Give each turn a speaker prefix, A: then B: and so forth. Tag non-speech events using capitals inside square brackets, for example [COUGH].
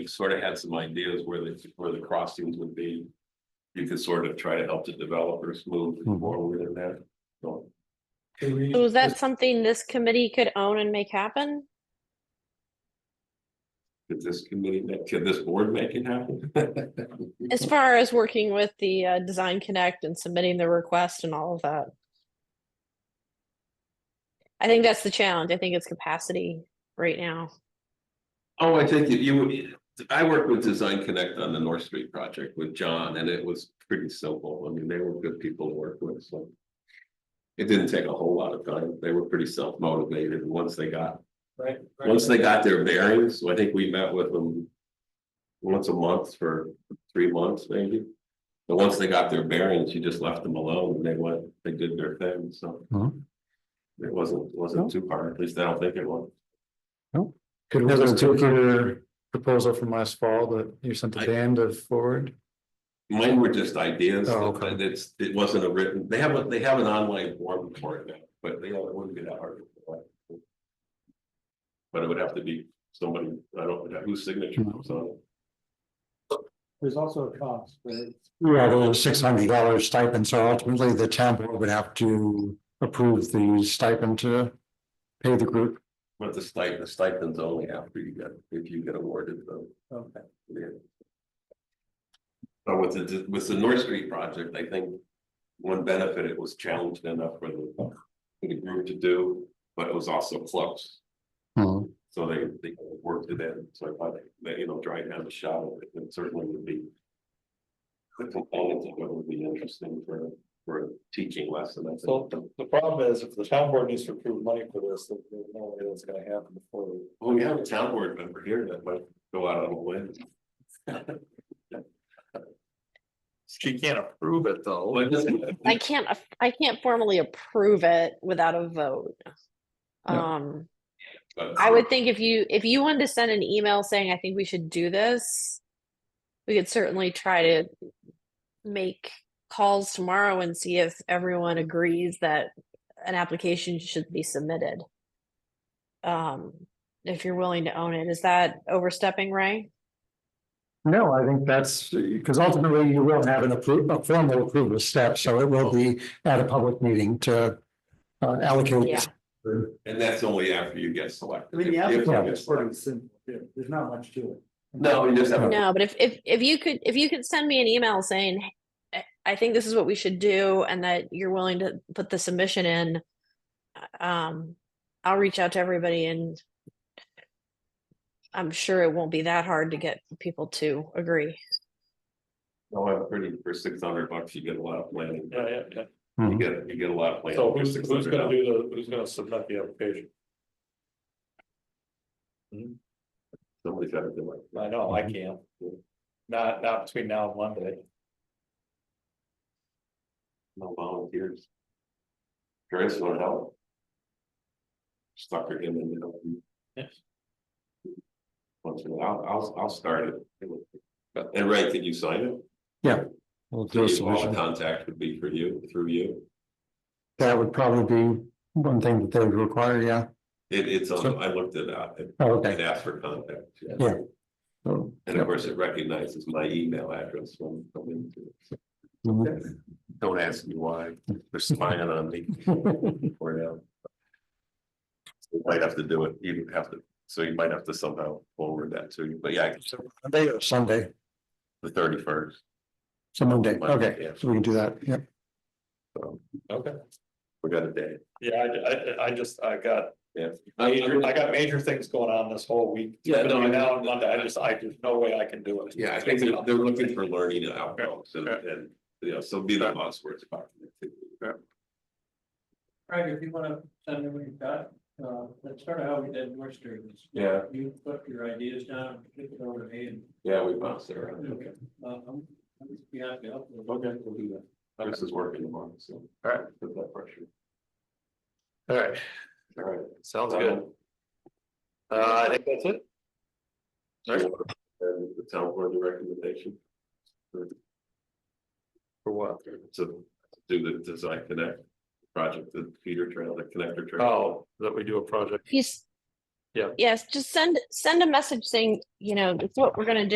A: you sort of had some ideas where the, where the crossings would be. You could sort of try to help the developers move
B: Mhm.
A: forward in that, so.
C: So is that something this committee could own and make happen?
A: Could this committee, make- could this board make it happen? Mm-hmm.
C: As far as working with the uh, Design Connect and submitting the request and all of that? I think that's the challenge. I think it's capacity right now.
A: Oh, I think if you, I worked with Design Connect on the North Street project with John, and it was pretty simple. I mean, they were good people to work with, so. It didn't take a whole lot of time. They were pretty self-motivated, and once they got
D: Right. right.
A: Once they got their bearings, so I think we met with them. Once a month for three months, maybe. But once they got their bearings, you just left them alone and they went, they did their thing, so.
B: Mhm.
A: It wasn't, wasn't too hard, at least I don't think it was.
D: Could we just take your proposal from last fall that you sent to
A: I-
D: Dan to forward?
A: Mine were just ideas,
D: Oh, okay.
A: and it's, it wasn't a written, they have, a they have an online form for it now, but they, it wouldn't be that hard. to fill out. But it would have to be somebody, I don't, know whose signature was on it.
E: There's also a cost, right?
B: Yeah, there was six hundred dollar stipend, so ultimately the town board would have to approve the stipend to pay the group.
A: But the stipend, the stipends only after you get, if you get awarded them,
E: Okay.
A: yeah. But with the, with the North Street project, I think one benefit, it was challenging enough for the, for the group to do, but it was also close.
B: Hmm.
A: So they, they worked it in, so I thought that, you know, trying to have a shot at it, it certainly would be. The components of it would be interesting for, for a teaching lesson, I
E: So
A: think.
E: the, the problem is if the town board needs to approve money for this, then there's no way that's gonna happen before. we-
A: Well, oh, we have a town board member here that might go out on a limb.
D: She can't approve it though.
C: I can't, af- I can't formally approve it without a vote.
B: Yeah.
C: Um,
A: But-
C: I would think if you, if you wanted to send an email saying, I think we should do this, we could certainly try to make calls tomorrow and see if everyone agrees that an application should be submitted. Um, if you're willing to own it, is that overstepping, Ray?
B: No, I think that's, because ultimately you will have an approval, a formal approval step, so it will be at a public meeting to uh,
C: Yeah.
B: allocate.
A: And that's only after you get selected.
E: I mean, the
A: If- if you
E: applicant
A: get
E: is sort
A: selected.
E: of simple, yeah, there's not much to it.
A: No, you just have. to-
C: No, but if, if, if you could, if you could send me an email saying, "Hey, I- I think this is what we should do and that you're willing to put the submission in. uh, Um, I'll reach out to everybody and I'm sure it won't be that hard to get people to agree.
A: No, I'm pretty, for six hundred bucks, you get a lot of planning.
E: Yeah, yeah, yeah.
A: You get, you get a lot of planning.
E: So
A: for
E: who's, who's
A: $600.
E: gonna do the, who's gonna submit the application?
A: Somebody's gotta do it.
E: I know, I can't. Not, not between now and Monday.
A: No volunteers. Chris, want to help? Stuck her in the middle.
E: Yes.
A: Once in a while, I'll, I'll start it. And Ray, can you sign it?
B: We'll do a
A: So All
B: submission.
A: contact would be for you, through you.
B: That would probably be one thing that they would require, yeah.
A: It, it's, on-
B: So-
A: I looked it up. It
B: Oh,
A: it
B: Okay.
A: asked for contact.
B: So,
A: And of course, it recognizes my email address when I come into it.
B: mhm.
A: Don't ask me why, they're spying on
B: [LAUGHS]
A: me for now. You Might have to do it, you have to, so you might have to somehow forward that to you, but yeah,
B: So Monday or Sunday,
A: the thirty first.
B: so Monday,
A: Monday,
B: okay,
A: yeah.
B: so we can do that, yeah.
E: Okay.
A: We got a day.
E: Yeah, I, I, I just, I got Major, I
A: Yeah,
E: got major things going on this whole week.
A: Yeah, no, I-
E: Between Now and Monday, I just, I, there's no way I can do it.
A: I think they're, they're looking for learning outcomes and, and, you know, so be the buzzwords about it.
F: Craig, if you wanna send me what you've got, uh, that's sort of how we did North Street. is
A: Yeah,
F: You put your ideas down, kick it over to me and,
A: yeah, we bounced it around.
F: Okay. uh, I'm, I'm just be happy to help. you.
A: Okay, we'll do that. Chris is working tomorrow, so.
E: Alright.
A: Put that pressure.
E: All right,
A: All right.
E: sounds good. Uh, I think that's it. All right.
A: And the town board the recommendation.
E: For what?
A: to do the design connect project, the feeder trail, the connector trail.
E: Oh, that we do a project.
C: He's,
D: Yeah.
C: Yes, just send, send a message saying, you know, it's what we're gonna do.